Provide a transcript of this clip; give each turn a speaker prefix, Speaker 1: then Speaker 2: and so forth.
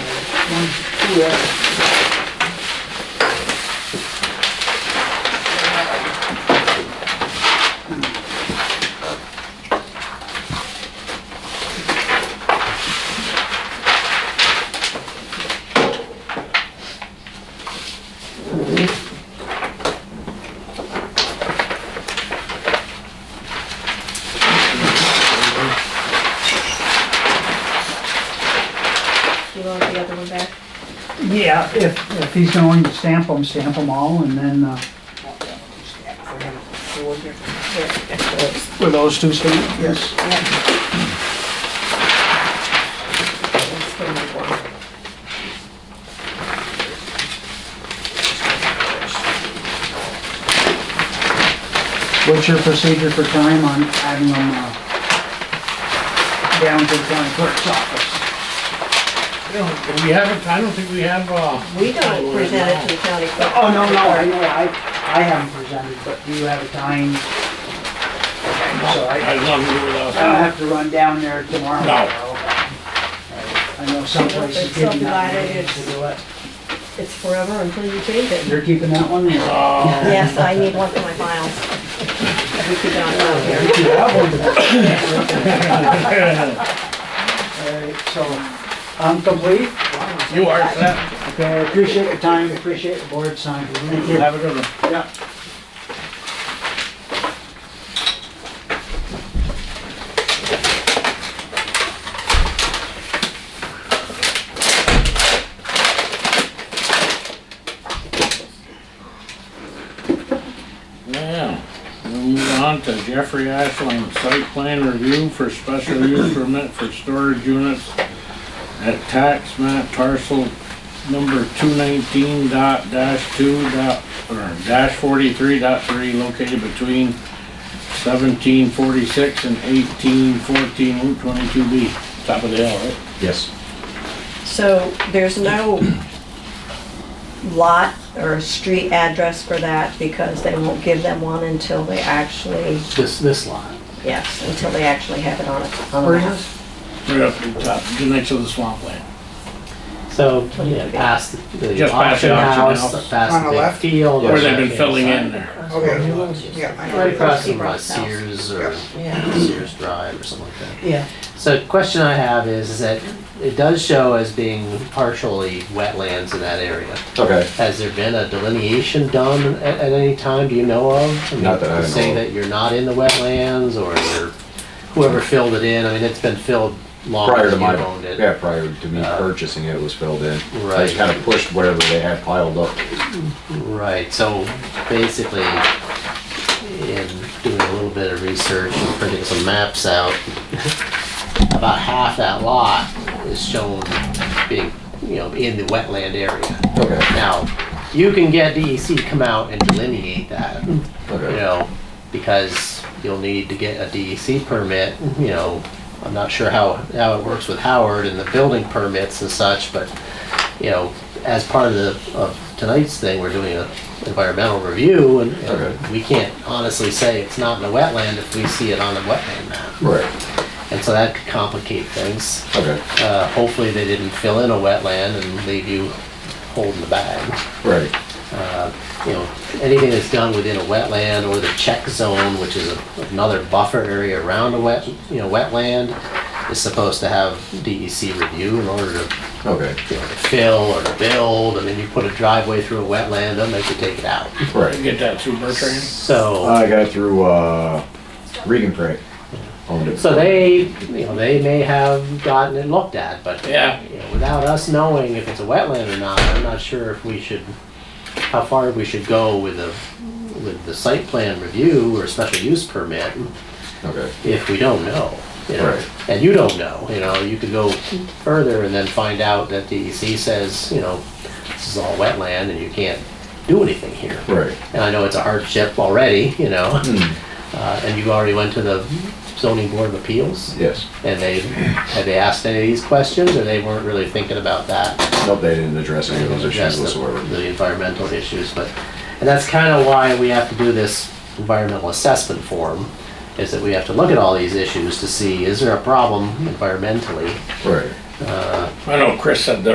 Speaker 1: one here.
Speaker 2: Do you want the other one back?
Speaker 1: Yeah, if, if he's going to stamp them, stamp them all, and then, uh, were those two stamped? Yes. What's your procedure for time on having them, uh, down to the county clerk's office?
Speaker 3: No, We haven't, I don't think we have, uh.
Speaker 2: We don't present it to the county clerk.
Speaker 1: Oh, no, no, I know, I, I haven't presented, but do you have a time? So I,
Speaker 3: I love you without
Speaker 1: I don't
Speaker 3: that.
Speaker 1: have to run down there tomorrow.
Speaker 3: No.
Speaker 1: Okay. I know some places
Speaker 2: It's
Speaker 1: give you that
Speaker 2: subdivided,
Speaker 1: many days to do it.
Speaker 2: It's forever until you change it.
Speaker 1: You're keeping that one? Yeah.
Speaker 3: Uh,
Speaker 2: Yes, I need one for my files. We keep it on file here.
Speaker 1: You have one. Alright, So, I'm complete.
Speaker 3: You are set.
Speaker 1: Okay, I appreciate your time, appreciate the board's time.
Speaker 3: Have a good one.
Speaker 1: Yeah.
Speaker 3: Now, we'll move on to Jeffrey Ashland, site plan review for special use permit for storage units at tax map parcel number two nineteen dot dash two dot, or dash forty-three dot three located between seventeen forty-six and eighteen fourteen Route twenty-two B, top of the hill, right?
Speaker 4: Yes.
Speaker 2: So there's no lot or street address for that because they won't give them one until they actually,
Speaker 4: This, this lot.
Speaker 2: yes, until they actually have it on it. on a
Speaker 1: Where is
Speaker 2: map.
Speaker 1: this?
Speaker 3: Right up the top, next to the swampland.
Speaker 4: So, yeah, past the
Speaker 3: Just past the auction
Speaker 4: auction house,
Speaker 3: house.
Speaker 5: On
Speaker 4: past
Speaker 5: the
Speaker 4: the big
Speaker 5: left?
Speaker 4: field.
Speaker 3: Where they've
Speaker 4: right
Speaker 3: been filling in
Speaker 4: inside.
Speaker 3: there.
Speaker 5: Okay, yeah, I know.
Speaker 4: Right across from uh,
Speaker 2: Seabrook's house.
Speaker 4: Sears or
Speaker 5: Yeah.
Speaker 4: Sears Drive or something like that.
Speaker 5: Yeah.
Speaker 4: So question I have is, is that it does show as being partially wetlands in that area.
Speaker 6: Okay,
Speaker 4: Has there been a delineation done at, at any time, do you know of? mean,
Speaker 6: Not that I
Speaker 4: to Say
Speaker 6: know of.
Speaker 4: that you're not in the wetlands or you're- whoever filled it in, I mean, it's been filled long
Speaker 6: prior
Speaker 4: as
Speaker 6: to
Speaker 4: you
Speaker 6: my,
Speaker 4: owned it.
Speaker 6: yeah, prior to me
Speaker 4: Uh,
Speaker 6: purchasing it, it was filled in. I
Speaker 4: Right.
Speaker 6: kind of pushed whatever they had piled up.
Speaker 4: Right, so basically, in doing a little bit of research and printing some maps out, about half that lot is shown being, you know, in the wetland area.
Speaker 6: Okay,
Speaker 4: Now, you can get DEC to come out and delineate that, you
Speaker 6: okay.
Speaker 4: know, because you'll need to get a DEC permit, you know, I'm not sure how, how it works with Howard and the building permits and such, but you know, as part of the, of tonight's thing, we're doing an environmental review and, and
Speaker 6: Okay.
Speaker 4: we can't honestly say it's not in a wetland if we see it on a wetland map.
Speaker 6: Right,
Speaker 4: And so that could complicate things.
Speaker 6: okay,
Speaker 4: Uh, hopefully they didn't fill in a wetland and leave you holding the bag.
Speaker 6: right,
Speaker 4: You know, anything that's done within a wetland or the check zone, which is a- another buffer area around a wet, you know, wetland, is supposed to have DEC review in order to
Speaker 6: okay,
Speaker 4: you know, to fill or to build, I mean, you put a driveway through a wetland, they'll make you take it out.
Speaker 3: You
Speaker 6: right.
Speaker 3: get that through Bertrand?
Speaker 4: So,
Speaker 6: I got it through, uh, Regan Craig. Owned it.
Speaker 4: so they, you know, they may have gotten it looked at, but
Speaker 3: Yeah.
Speaker 4: you know, without us knowing if it's a wetland or not, I'm not sure if we should, how far we should go with the, with the site plan review or special use permit
Speaker 6: Okay,
Speaker 4: if we don't know. You know?
Speaker 6: Right.
Speaker 4: And you don't know, you know, you could go further and then find out that DEC says, you know, this is all wetland and you can't do anything here.
Speaker 6: right,
Speaker 4: and I know it's a hardship already, you know. Uh, and you already went to the zoning board of appeals,
Speaker 6: yes.
Speaker 4: and they, had they asked any of these questions, or they weren't really thinking about that?
Speaker 6: Nope, they didn't address any of those
Speaker 4: Address
Speaker 6: issues
Speaker 4: the-
Speaker 6: whatsoever.
Speaker 4: The environmental issues, but, and that's kind of why we have to do this environmental assessment form, is that we have to look at all these issues to see, is there a problem environmentally?
Speaker 6: Right.
Speaker 3: I know Chris said that